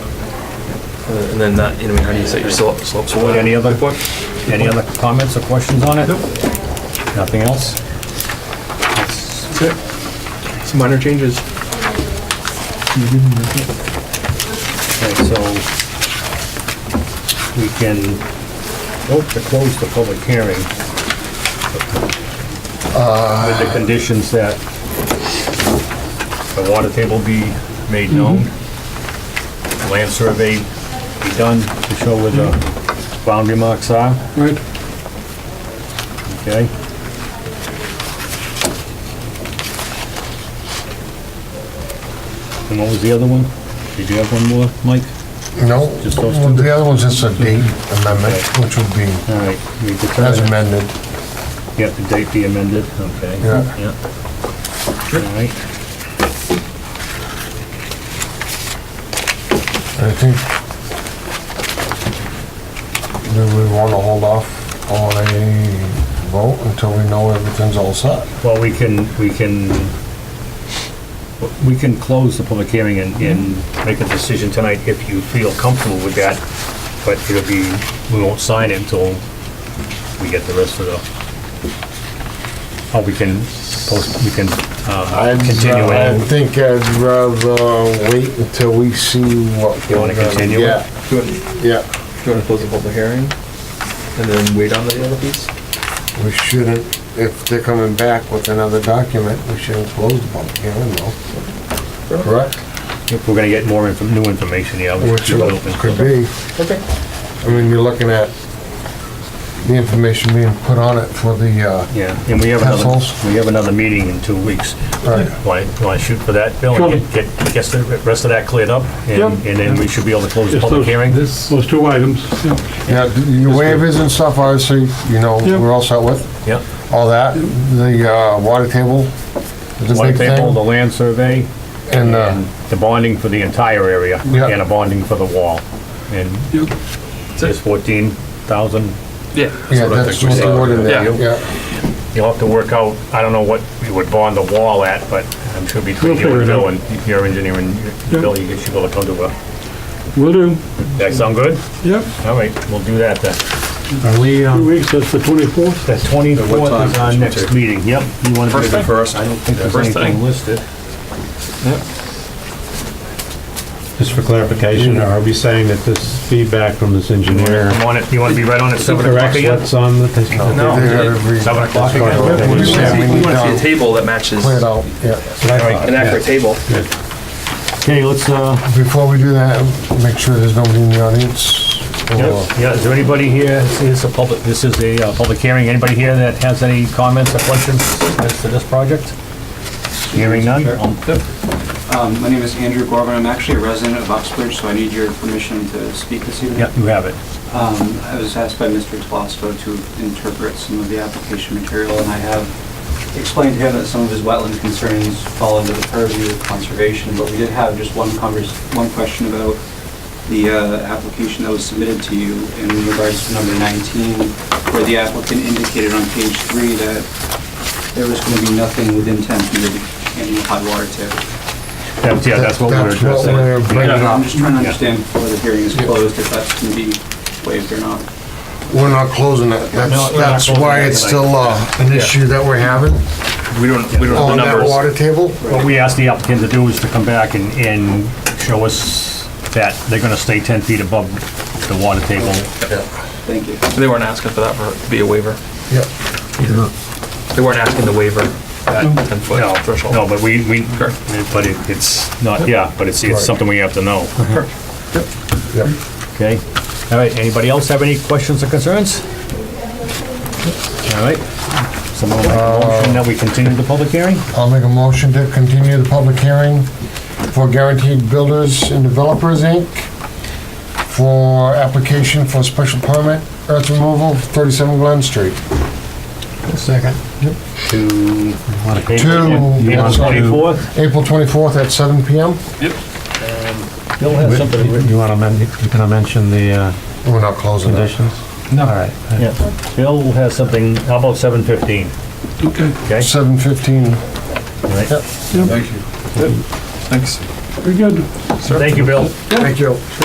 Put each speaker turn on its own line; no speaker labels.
Uh, And then that, you know, I mean, how do you set your slope, slopes?
Board, any other, any other comments or questions on it?
Nope.
Nothing else?
Some minor changes.
Okay, so we can vote to close the public hearing with the conditions that the water table be made known,
Mm-hmm.
land survey be done to show where the boundary marks are,
Right.
okay? And what was the other one? Did you have one more, Mike?
No,
Just those two?
the other one's just a date amendment, which would be
All right, we determine-
as amended.
Yeah, the date be amended, okay.
Yeah.
All right,
I think do we want to hold off on a vote until we know everything's all set?
well, we can, we can, we can close the public hearing and,
Mm-hmm.
and make a decision tonight if you feel comfortable with that, but it'll be, we won't sign it until we get the rest of the, or we can post, we can, uh, continue
I
it.
think I'd rather wait until we see what.
You wanna
we're gonna
continue it?
get.
Do you want to
Yeah,
close the public hearing and then wait on the other piece?
we shouldn't, if they're coming back with another document, we shouldn't close the public hearing though. Correct?
If we're gonna get more info, new information, yeah. we should
Which
keep it open.
it could be.
Okay.
I mean, you're looking at the information being put on it for the, uh,
Yeah, and we have another,
Pencils.
we have another meeting in two weeks.
Right.
Want to shoot for that, Bill, and get, get gets the rest of that cleared up? And
Yep.
and then we should be able to close the
Just
public
those-
hearing?
Those two items, yeah.
yeah, your waivers and stuff, obviously, you know,
Yeah.
we're all set with,
Yep.
all that, the, uh, water table, the
White
big
paper, the
thing,
land survey, and
and, uh,
the bonding for the entire area,
Yeah.
and a bonding for the wall. And
Yep.
it's fourteen thousand.
Yeah.
yeah, that's what they would in there,
Yeah.
yeah.
You'll have to work out, I don't know what we would bond the wall at, but I'm sure between
We'll
you
figure
and
it
Bill
out.
and your engineer and
Yep.
Bill, you should be able to come to a,
Will do.
that sound good?
Yep.
All right, we'll do that then.
Are we,
um,
Two weeks, that's the 24th.
The
What time?
twenty-fourth is our next meeting, yep. You want to
First
do the
thing?
first? I don't think there's
First
anything
thing.
listed.
Just for clarification, are we saying that this feedback from this engineer
You want it, you want to be right on at seven o'clock
corrects
again?
what's on the?
No. Seven
Seven
o'clock again.
We
We
said we need
want to see a
to
table that matches
clear it
an
out, yeah.
Alright,
accurate table.
Okay, let's, uh,
Before we do that, make sure there's nobody in the audience. or-
yeah, yeah, is there anybody here, this is a public, this is a uh, public hearing, anybody here that has any comments or questions as to this project? Hearing none? Um,
Um, My name is Andrew Gorman. I'm actually a resident of Uxbridge, so I need your permission to speak this evening.
Yeah, you have it.
Um, I was asked by Mr. Telesco to interpret some of the application material, and I have explained to him that some of his wetland concerns fall under the purview of conservation, but we did have just one convers, one question about the uh, application that was submitted to you in regards to number 19, where the applicant indicated on page three that there was going to be nothing within 10 feet of any hot water tip.
That's, yeah, that's what we're
That's what
addressing.
we're bringing
Yeah.
I'm
up.
just trying to understand before the hearing is closed if that's going to be waived or not.
We're not closing it,
No,
that's,
we're not
that's
closing
why
it
it's
tonight.
still, uh, an issue that we're having
We don't, we don't have the
on Oh, that
numbers.
water table.
What we asked the applicant to do is to come back and, and show us that they're gonna stay ten feet above the water table.
Thank you.
They weren't asking for that for, to be a waiver.
Yep.
They weren't asking the waiver at ten
No,
foot threshold.
No, but we, we,
Sure.
but it- it's not, yeah, but it's, it's
Right.
something we have to know.
Yep.
Okay, all right, anybody else have any questions or concerns? All right, someone make a
Uh,
motion that we continue the public hearing?
I'll make a motion to continue the public hearing for Guaranteed Builders and Developers, Inc. for application for special permit, earth removal, 37 Glen Street. Second.
To.
Two.
April twenty-fourth?
April 24th at 7 PM.
Bill has something written.
You want to, men- you gonna mention the uh,
We're not closing it.
conditions? No. All right.
Yeah, Bill has something, how about seven fifteen?
Okay.
Okay,
7:15.
all right.
Yep.
Yep.
Thanks.
Very good.
thank you, Bill.
Thank you.